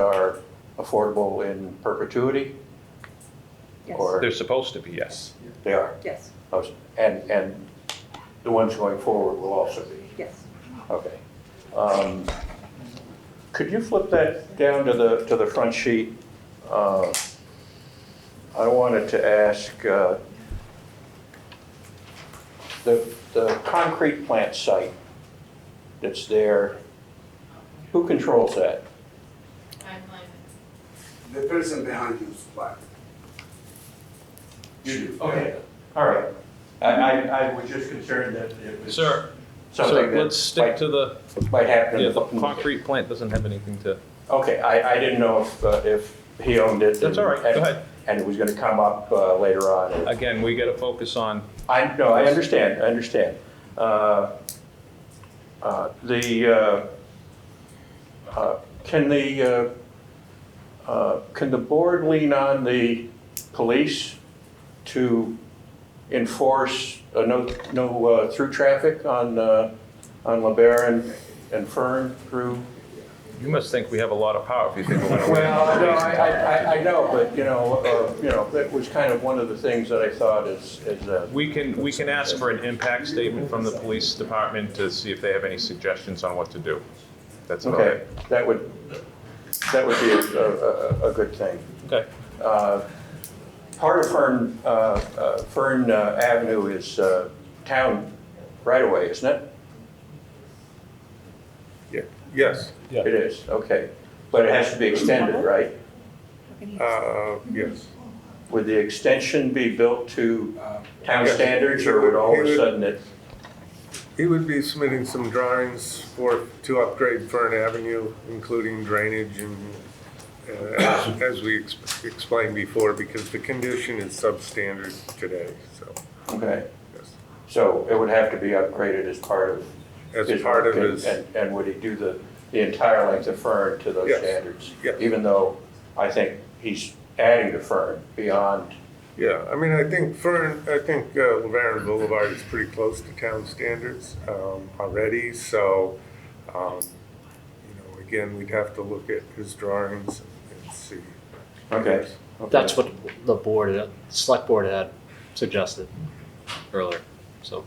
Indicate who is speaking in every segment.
Speaker 1: are affordable in perpetuity? Or
Speaker 2: They're supposed to be, yes.
Speaker 1: they are?
Speaker 3: Yes,
Speaker 1: Oh, And, and the ones going forward will also be?
Speaker 3: yes.
Speaker 1: Okay. Um, Could you flip that down to the, to the front sheet? Uh, I wanted to ask, uh, the, the concrete plant site that's there, who controls that?
Speaker 4: I'm like,
Speaker 5: The person behind you is black. You do.
Speaker 1: Okay, all right. I, I, I was just concerned that it was.
Speaker 2: Sir, So
Speaker 1: Something
Speaker 2: let's
Speaker 1: that
Speaker 2: stick
Speaker 1: might,
Speaker 2: to the,
Speaker 1: might happen.
Speaker 2: yeah, the concrete plant doesn't have anything to,
Speaker 1: Okay, I, I didn't know if, uh, if he owned it.
Speaker 2: that's all right, go
Speaker 1: and-
Speaker 2: ahead.
Speaker 1: And it was gonna come up, uh, later on.
Speaker 2: Again, we got to focus on,
Speaker 1: I, no, I understand, I understand. Uh, uh, The, uh, uh, can the, uh, uh, can the board lean on the police to enforce a no, no uh, through traffic on, uh, on LeBaron and Fern through?
Speaker 2: you must think we have a lot of power if you think we're going to.
Speaker 1: Well, no, I, I- I, I know, but, you know, uh, you know, that was kind of one of the things that I thought is, is, uh,
Speaker 2: We can, we can ask for an impact statement from the police department to see if they have any suggestions on what to do. That's about
Speaker 1: okay,
Speaker 2: it.
Speaker 1: that would, that would be a, a, a- a good thing.
Speaker 2: Okay.
Speaker 1: Uh, Part of Fern, uh, uh, Fern uh, Avenue is uh, town right away, isn't it?
Speaker 6: Yes,
Speaker 2: Yeah.
Speaker 1: It is, okay. But it has to be extended, right?
Speaker 6: uh, yes.
Speaker 1: Would the extension be built to uh, town standards or would all of a sudden it,
Speaker 6: He would be submitting some drawings for, to upgrade Fern Avenue, including drainage and, uh, as- as we ex- explained before, because the condition is substandard today, so,
Speaker 1: okay?
Speaker 6: yes.
Speaker 1: So it would have to be upgraded as part of
Speaker 6: As part of
Speaker 1: work, and-
Speaker 6: his,
Speaker 1: And, and would he do the, the entire length of Fern to those
Speaker 6: Yes.
Speaker 1: standards?
Speaker 6: Yeah.
Speaker 1: Even though I think he's adding to Fern beyond,
Speaker 6: yeah, I mean, I think Fern, I think uh, Laverne Boulevard is pretty close to town standards um, already, so, um, you know, again, we'd have to look at his drawings and see.
Speaker 1: okay. okay.
Speaker 7: That's what the board, the select board had suggested earlier, so.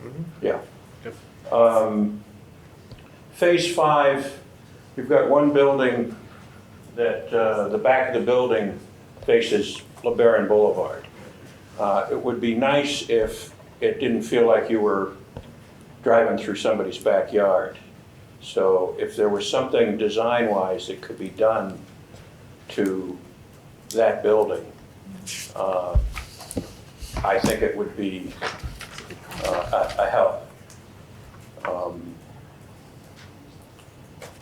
Speaker 1: Um, Phase five, you've got one building that, uh, the back of the building faces LeBaron Boulevard. Uh, It would be nice if it didn't feel like you were driving through somebody's backyard. So if there was something design-wise that could be done to that building, uh, I think it would be uh, a a help. Um,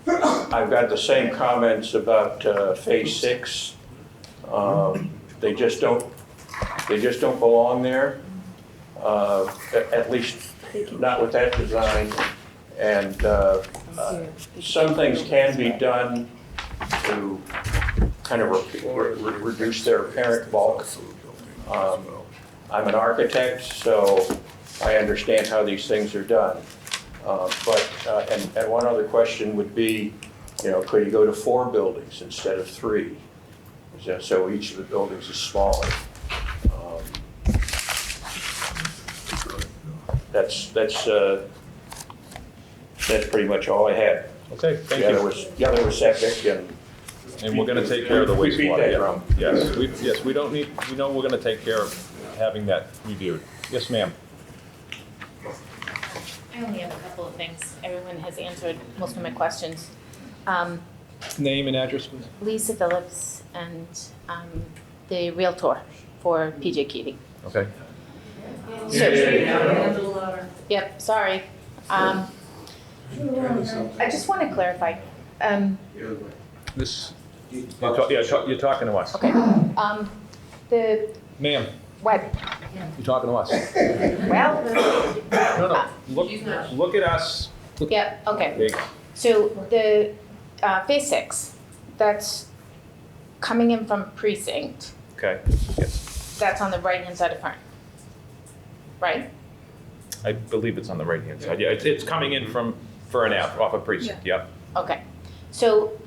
Speaker 1: I've got the same comments about uh, Phase Six. Um, They just don't, they just don't belong there, uh, a- at least not with that design. And uh, uh, some things can be done to kind of re- re- reduce their apparent bulk. Um, I'm an architect, so I understand how these things are done. Uh, But, uh, and, and one other question would be, you know, could you go to four buildings instead of three? So- So each of the buildings is smaller. Um, That's, that's, uh, that's pretty much all I had.
Speaker 2: Okay, thank
Speaker 1: The other
Speaker 2: you.
Speaker 1: was, the other was septic and.
Speaker 2: And we're going to take care of the
Speaker 1: We beat that
Speaker 2: wastewater. yeah.
Speaker 1: drum.
Speaker 2: Yes, we, yes, we don't need, we know we're going to take care of having that reviewed. Yes, ma'am.
Speaker 4: I only have a couple of things. Everyone has answered most of my questions. Um,
Speaker 2: Name and address, please.
Speaker 4: Lisa Phillips and, um, the Realtor for PJ Keating.
Speaker 2: Okay.
Speaker 4: Yep, sorry. Um, I just want to clarify, um,
Speaker 2: This, you're ta- yeah, ta- you're talking to us.
Speaker 4: okay, um, the,
Speaker 2: Ma'am,
Speaker 4: what,
Speaker 2: you're talking to us.
Speaker 4: well,
Speaker 2: No, no, look, look at us.
Speaker 4: yep, okay.
Speaker 2: There you go.
Speaker 4: So the, uh, phase six, that's coming in from precinct,
Speaker 2: Okay,
Speaker 4: that's on the right-hand side of Fern. Right?
Speaker 2: I believe it's on the right-hand side. Yeah, it's, it's coming in from Fern Ave, off of Precinct, yep.
Speaker 4: Okay, so